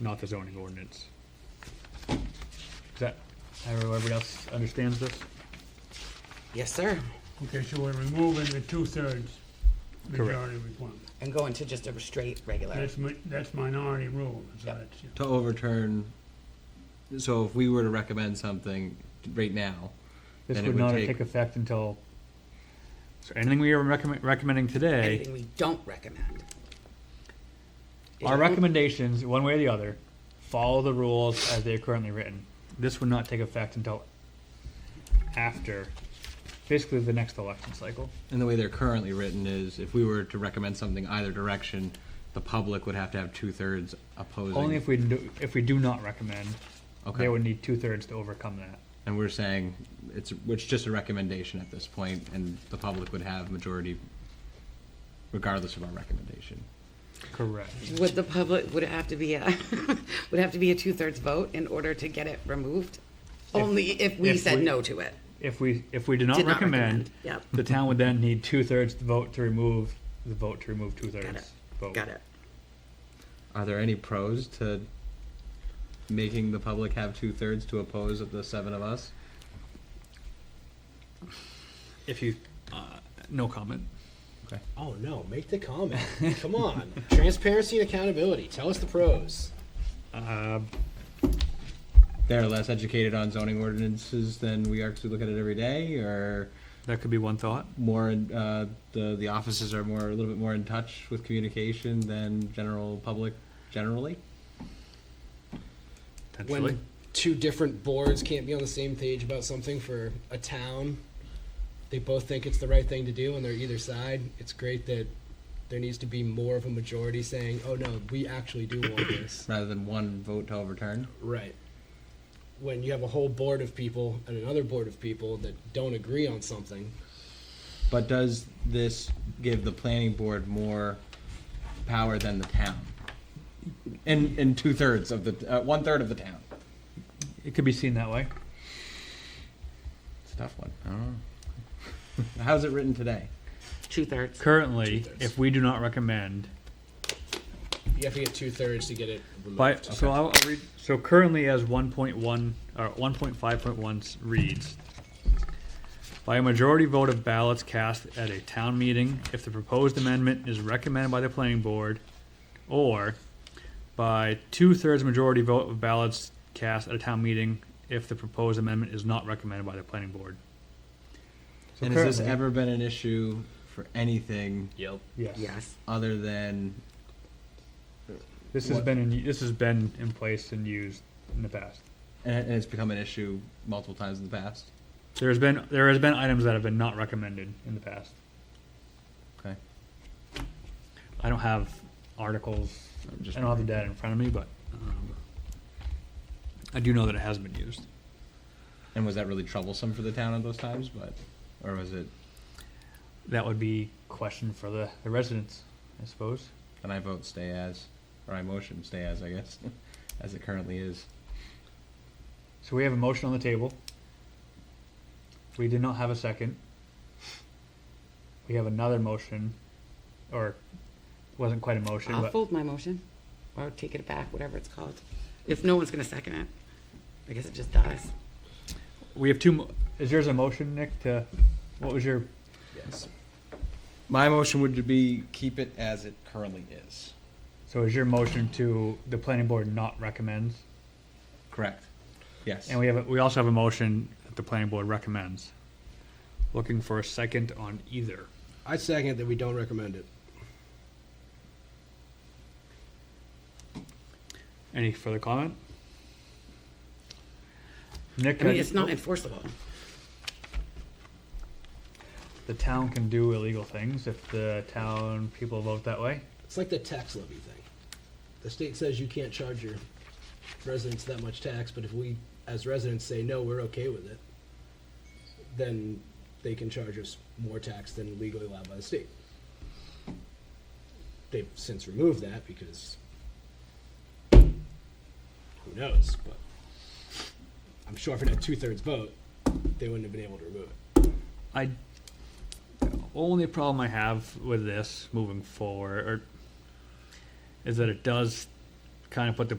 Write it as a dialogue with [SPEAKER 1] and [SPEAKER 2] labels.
[SPEAKER 1] not the zoning ordinance. Is that, everybody else understands this?
[SPEAKER 2] Yes, sir.
[SPEAKER 3] Okay, so we're removing the two-thirds majority requirement.
[SPEAKER 2] And going to just a straight regular.
[SPEAKER 3] That's, mi- that's minority rule, so
[SPEAKER 2] Yep.
[SPEAKER 3] that's,
[SPEAKER 4] to overturn, so if we were to recommend something right now,
[SPEAKER 1] This
[SPEAKER 4] Then it
[SPEAKER 1] would
[SPEAKER 4] would
[SPEAKER 1] not
[SPEAKER 4] take-
[SPEAKER 1] take effect until, so anything we are recommend, recommending today,
[SPEAKER 2] Anything we don't recommend.
[SPEAKER 1] our
[SPEAKER 2] It-
[SPEAKER 1] recommendations, one way or the other, follow the rules as they are currently written. This would not take effect until after, basically the next election cycle.
[SPEAKER 4] and the way they're currently written is, if we were to recommend something either direction, the public would have to have two-thirds opposing.
[SPEAKER 1] Only if we do, if we do not recommend,
[SPEAKER 4] Okay.
[SPEAKER 1] they would need two thirds to overcome that.
[SPEAKER 4] And we're saying, it's, it's just a recommendation at this point, and the public would have majority regardless of our recommendation.
[SPEAKER 1] Correct.
[SPEAKER 2] Would the public, would it have to be a, would it have to be a two-thirds vote in order to get it removed? Only if we
[SPEAKER 1] if
[SPEAKER 2] said
[SPEAKER 1] we-
[SPEAKER 2] no to it.
[SPEAKER 1] If we, if we do not
[SPEAKER 2] Did not
[SPEAKER 1] recommend,
[SPEAKER 2] recommend, yep.
[SPEAKER 1] the town would then need two thirds to vote to remove, the vote to remove two thirds. vote.
[SPEAKER 2] Got it.
[SPEAKER 4] Are there any pros to making the public have two-thirds to oppose the seven of us?
[SPEAKER 1] If you, uh, no comment.
[SPEAKER 5] Oh no, make the comment. Come on. Transparency and accountability. Tell us the pros.
[SPEAKER 1] Uh,
[SPEAKER 4] They're less educated on zoning ordinances than we are, 'cause we look at it every day, or?
[SPEAKER 1] that could be one thought.
[SPEAKER 4] more in, uh, the the offices are more a little bit more in touch with communication than general public generally.
[SPEAKER 1] Potentially.
[SPEAKER 5] When two different boards can't be on the same page about something for a town, they both think it's the right thing to do and they're either side. It's great that there needs to be more of a majority saying, "Oh no, we actually do want this."
[SPEAKER 4] Rather than one vote to overturn.
[SPEAKER 5] Right. When you have a whole board of people and another board of people that don't agree on something,
[SPEAKER 4] But does this give the planning board more power than the town? And and two thirds of the uh, one third of the town.
[SPEAKER 1] It could be seen that way.
[SPEAKER 4] It's a tough one. I don't know. How's it written today?
[SPEAKER 2] Two-thirds.
[SPEAKER 1] Currently,
[SPEAKER 5] Two-thirds.
[SPEAKER 1] if we do not recommend,
[SPEAKER 5] you have to get two thirds to get it removed.
[SPEAKER 1] By, so I'll I'll read, so currently as one point one, or one point five point one reads, by a majority vote of ballots cast at a town meeting, if the proposed amendment is recommended by the planning board, or by two-thirds majority vote of ballots cast at a town meeting, if the proposed amendment is not recommended by the planning board. So
[SPEAKER 4] and has this
[SPEAKER 1] currently-
[SPEAKER 4] ever been an issue for anything
[SPEAKER 5] Yep.
[SPEAKER 2] Yes.
[SPEAKER 4] other than
[SPEAKER 1] This has been, in- this has been in place and used in the past.
[SPEAKER 4] and and it's become an issue multiple times in the past?
[SPEAKER 1] There's been, there has been items that have been not recommended in the past.
[SPEAKER 4] Okay.
[SPEAKER 1] I don't have articles.
[SPEAKER 4] I'm just
[SPEAKER 1] I don't have the data in front of me, but um, I do know that it has been used.
[SPEAKER 4] And was that really troublesome for the town at those times? But, or was it?
[SPEAKER 1] That would be question for the, the residents, I suppose.
[SPEAKER 4] Then I vote stay as, or I motion stay as, I guess, as it currently is.
[SPEAKER 1] So we have a motion on the table. We did not have a second. We have another motion, or it wasn't quite a motion,
[SPEAKER 2] I'll
[SPEAKER 1] but
[SPEAKER 2] fold my motion, or take it back, whatever it's called. If no one's gonna second it, I guess it just dies.
[SPEAKER 1] we have two. Mo- is yours a motion, Nick? To what was your?
[SPEAKER 4] Yes. My motion would be keep it as it currently is.
[SPEAKER 1] So is your motion to the planning board not recommends?
[SPEAKER 4] Correct. Yes.
[SPEAKER 1] And we have, a- we also have a motion that the planning board recommends. Looking for a second on either.
[SPEAKER 5] I second that we don't recommend it.
[SPEAKER 1] Any further comment? Nick,
[SPEAKER 2] I mean, it's not enforceable.
[SPEAKER 1] the town can do illegal things if the town people vote that way.
[SPEAKER 5] It's like the tax levy thing. The state says you can't charge your residents that much tax, but if we, as residents, say, no, we're okay with it, then they can charge us more tax than legally allowed by the state. They've since removed that because who knows, but I'm sure if it had two-thirds vote, they wouldn't have been able to remove it.
[SPEAKER 1] I, the only problem I have with this moving forward, or, is that it does kind of put the